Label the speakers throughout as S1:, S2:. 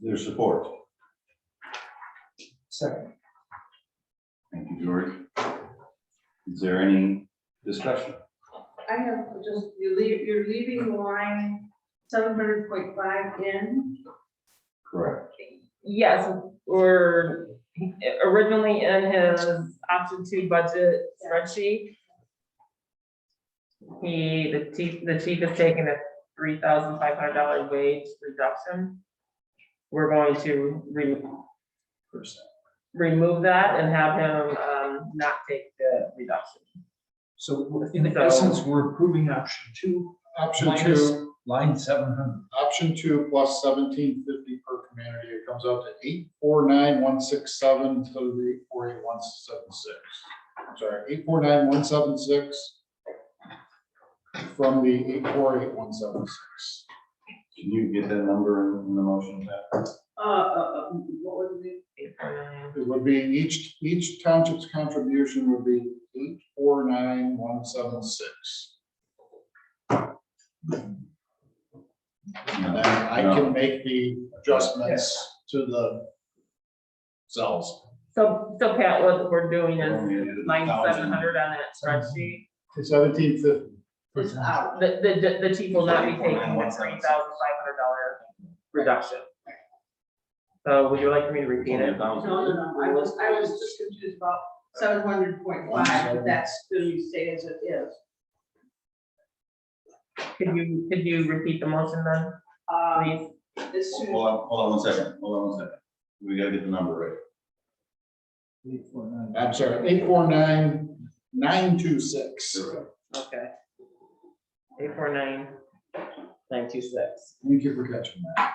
S1: their support.
S2: Second.
S1: Thank you, George. Is there any discussion?
S3: I have just, you leave, you're leaving line seven hundred point five in.
S1: Correct.
S4: Yes, or originally in his option two budget spreadsheet. He, the chief, the chief is taking a three thousand five hundred dollar wage reduction. We're going to re-
S2: Percent.
S4: remove that and have him, um, not take the reduction.
S2: So in essence, we're approving option two.
S5: Option
S2: minus
S5: two,
S2: Line seven hundred.
S5: option two plus seventeen fifty per community, it comes out to eight four nine one six seven to the eight four eight one seven six. I'm Sorry, eight four nine one seven six. From the eight four eight one seven six.
S1: Can you get that number in the motion? Pat?
S3: Uh, uh, uh, what was it?
S5: It would be each, each township's contribution would be eight four nine one seven six. And then I can make the adjustments to the cells.
S4: So, so Pat, what we're doing is
S1: Only a
S4: line seven
S1: thousand.
S4: hundred on that spreadsheet.
S5: Seventeen fifty,
S3: It's out.
S4: The, the- the, the chief will not be taking the
S1: 3,175.
S4: three thousand five hundred dollar reduction. So would you like me to repeat
S1: Only a
S4: it?
S3: No,
S1: thousand.
S3: no, no, I was, I was just confused about seven hundred point five, but that's, going to stay as it is.
S4: Could you, could you repeat the motion then,
S3: Um,
S4: please?
S3: this is,
S1: Hold on, hold on one second, hold on one second. We gotta get the number right.
S5: I'm sorry, eight four nine nine two six.
S4: Okay. Eight four nine, nine two six.
S5: Thank you for catching that.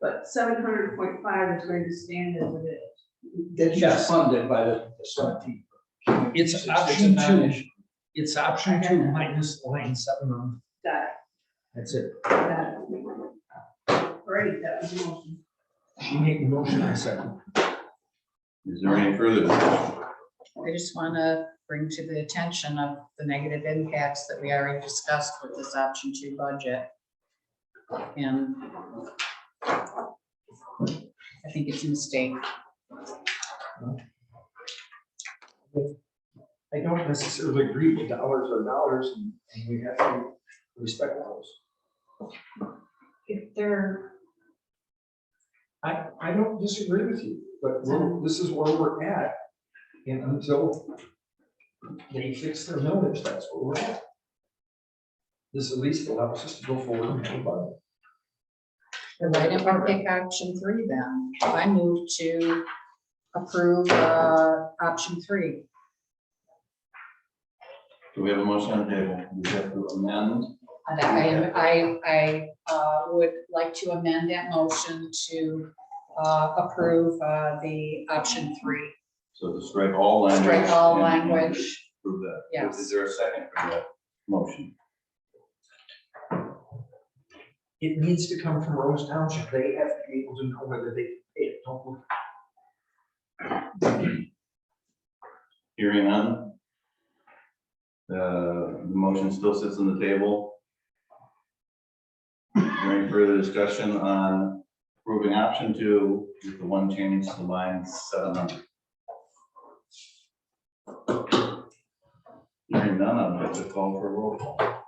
S3: but seven hundred point five is going to stand as it is.
S2: That's just funded by the seventeen. It's option two. It's option two minus line seven hundred.
S3: Got
S2: That's it.
S3: it, got it. Great, that was the motion.
S2: She made the motion, I second.
S1: Is there any further? discussion?
S6: I just want to bring to the attention of the negative impacts that we already discussed with this option two budget. And I think it's a mistake.
S2: I don't necessarily agree with dollars or dollars and and we have to respect those.
S6: If they're,
S2: I, I don't disagree with you, but we're- this is where we're at. And until they fix their millage, that's where we're at. This at least allows us to go forward and have a budget.
S6: why didn't we pick option three then? I move to approve uh, option three.
S1: Do we have a motion on the table? We have to amend.
S6: And I, I, I uh, would like to amend that motion to uh, approve uh, the option three.
S1: So to strike all language.
S6: Strike all
S1: and- and
S6: language.
S1: Prove that.
S6: Yes.
S1: Is there a second for that motion?
S2: It needs to come from Rose Township. They have to be able to know whether they can pay it. Don't look-
S1: Hearing none. Uh, The motion still sits on the table. Is there Any further discussion on approving option two with the one change to line seven hundred? Hearing none, I'd like to call for a roll call.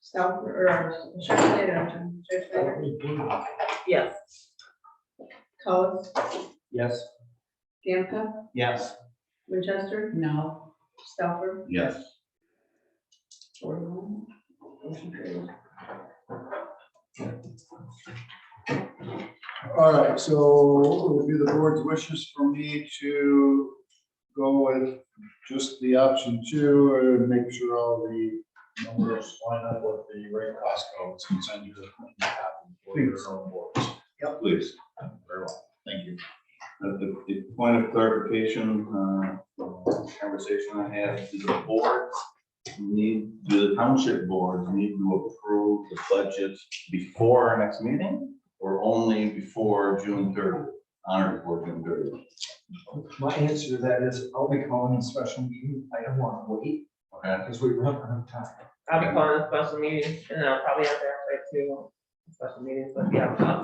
S3: Stop, or, uh, should I say that, should I say that?
S4: Yes,
S3: Coes,
S2: Yes.
S3: Gamka,
S1: Yes.
S3: Winchester,
S6: No,
S3: Stauffer.
S1: Yes.
S3: Motion carries.
S5: All right, so it would be the board's wishes for me to go with just the option two and make sure all the numbers line up with the right cost codes and send you the copy for your own boards.
S1: Please.
S5: Very well, thank you.
S1: At Uh, the, the point of clarification, uh, conversation I had, do the boards need, do the township boards need to approve the budget before our next meeting? Or only before June third, honor before June third?
S2: My answer to that is I'll be calling a special meeting. I don't want to wait
S1: Okay,
S2: because we run out of time.
S4: I'll be calling a special meeting and then I'll probably have to have like two special meetings, but yeah, I'll-